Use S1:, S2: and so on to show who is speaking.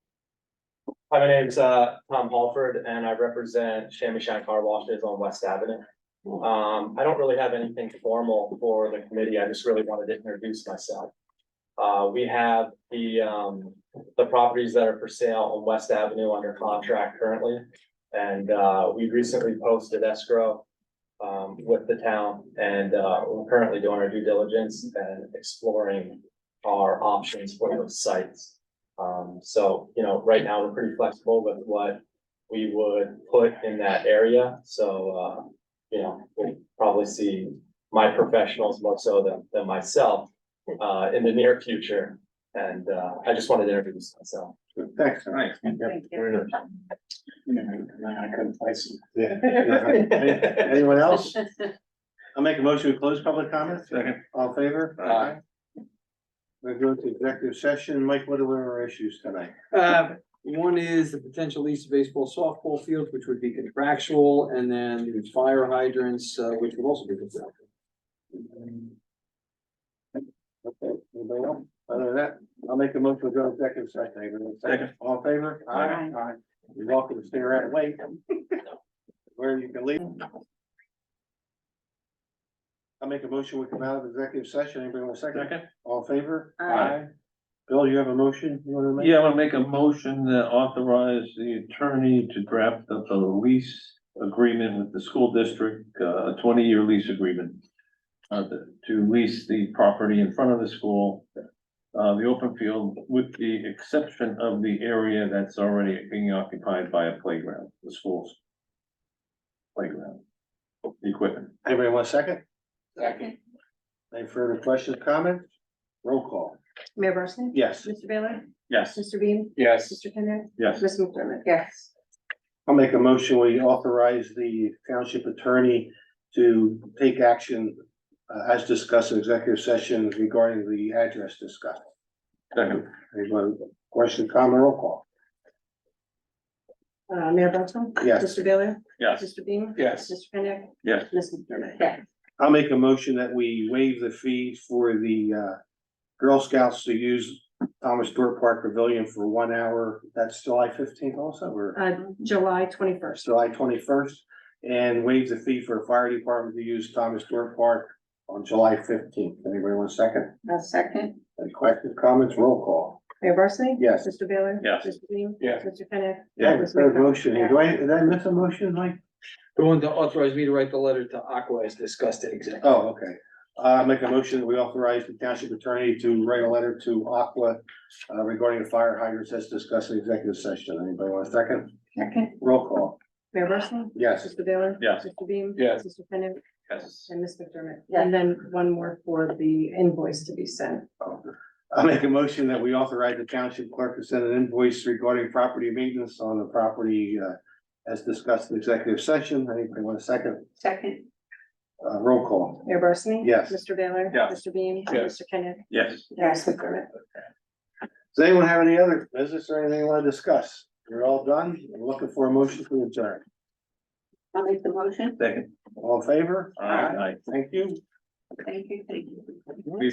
S1: my name's uh Tom Halford and I represent Shammy Shine Car Washes on West Avenue. Um, I don't really have anything formal for the committee. I just really wanted to introduce myself. Uh, we have the um, the properties that are for sale on West Avenue under contract currently. And uh, we recently posted escrow um with the town and uh, we're currently doing our due diligence and exploring our options for those sites. Um, so, you know, right now, we're pretty flexible with what we would put in that area, so, uh, you know, we'll probably see my professionals more so than, than myself, uh, in the near future. And, uh, I just wanted to introduce myself.
S2: Thanks. Nice.
S3: Thank
S2: Very nice.
S4: I couldn't place
S2: Yeah. Anyone else? I'll make a motion to close public comments. Second. All in favor?
S1: Aye.
S2: We're going to executive session. Mike, what are our issues tonight?
S4: Uh, one is the potential lease of baseball softball fields, which would be contractual, and then the fire hydrants, uh, which would also be contractual.
S2: Okay, anybody else? Other than that, I'll make a motion to go executive session. Everyone Second. All in favor?
S3: Aye.
S2: Aye. You're welcome to stay around and wait. Where you can leave. I'll make a motion. We come out of executive session. Anybody want a second?
S5: Second?
S2: All in favor?
S3: Aye.
S2: Bill, you have a motion you wanna make?
S5: Yeah, I wanna make a motion that authorize the attorney to draft up a lease agreement with the school district, uh, a twenty-year lease agreement. Uh, the- to lease the property in front of the school, uh, the open field, with the exception of the area that's already being occupied by a playground, the school's. Playground. Equipment.
S2: Anybody want a second?
S3: Second.
S2: Any further questions, comments? Roll call.
S6: Mayor Barsney?
S2: Yes,
S6: Mr. Baylor?
S5: Yes.
S6: Mr. Bean?
S4: Yes.
S6: Mr. Kenneth?
S5: Yes.
S6: Miss McDermott?
S3: Yes.
S2: I'll make a motion. We authorize the township attorney to take action uh, as discussed in executive session regarding the address discussed.
S5: Second.
S2: Anyone, question, comment, roll call?
S6: Uh, Mayor Barsney?
S2: Yes.
S6: Mr. Baylor?
S5: Yes.
S6: Mr. Bean?
S4: Yes.
S6: Mr. Kenneth?
S5: Yes.
S6: Miss McDermott?
S3: Yes.
S2: I'll make a motion that we waive the fee for the uh Girl Scouts to use Thomas Stewart Park Pavilion for one hour. That's July fifteenth also, or?
S6: Uh, July twenty-first.
S2: July twenty-first, and waive the fee for fire department to use Thomas Stewart Park on July fifteenth. Anybody want a second?
S3: A Uh, second.
S2: Any questions, comments, roll call?
S6: Mayor Barsney?
S2: Yes.
S6: Mr. Baylor?
S5: Yes.
S6: Mr. Bean?
S4: Yes.
S6: Mr. Kenneth?
S2: Yeah, there's no motion. here. Do I, did I miss a motion, Mike?
S4: The one that authorized me to write the letter to Aqua as discussed in executive.
S2: Oh, okay. Uh, I make a motion that we authorize the township attorney to write a letter to Aqua uh, regarding the fire hydrants as discussed in executive session. Anybody want a second?
S3: Second.
S2: Roll call.
S6: Mayor Barsney?
S2: Yes.
S6: Mr. Baylor?
S5: Yes.
S6: Mr. Bean?
S4: Yes.
S6: Mr. Kenneth?
S5: Yes.
S6: And Miss McDermott?
S3: Yes.
S6: And then one more for the invoice to be sent.
S2: I make a motion that we authorize the township clerk to send an invoice regarding property maintenance on the property uh. As discussed in executive session. Anybody want a second?
S3: Second.
S2: Uh, roll call.
S6: Mayor Barsney?
S2: Yes.
S6: Mr. Baylor?
S5: Yes.
S6: Mr. Bean?
S4: Yes.
S6: Mr. Kenneth?
S5: Yes.
S6: Yes. Miss McDermott?
S2: Does anyone have any other business or anything they want to discuss? You're all done. I'm looking for a motion to adjourn.
S3: I'll make the motion.
S5: Second.
S2: All in favor?
S5: All right.
S2: Thank you.
S3: Thank you, thank you.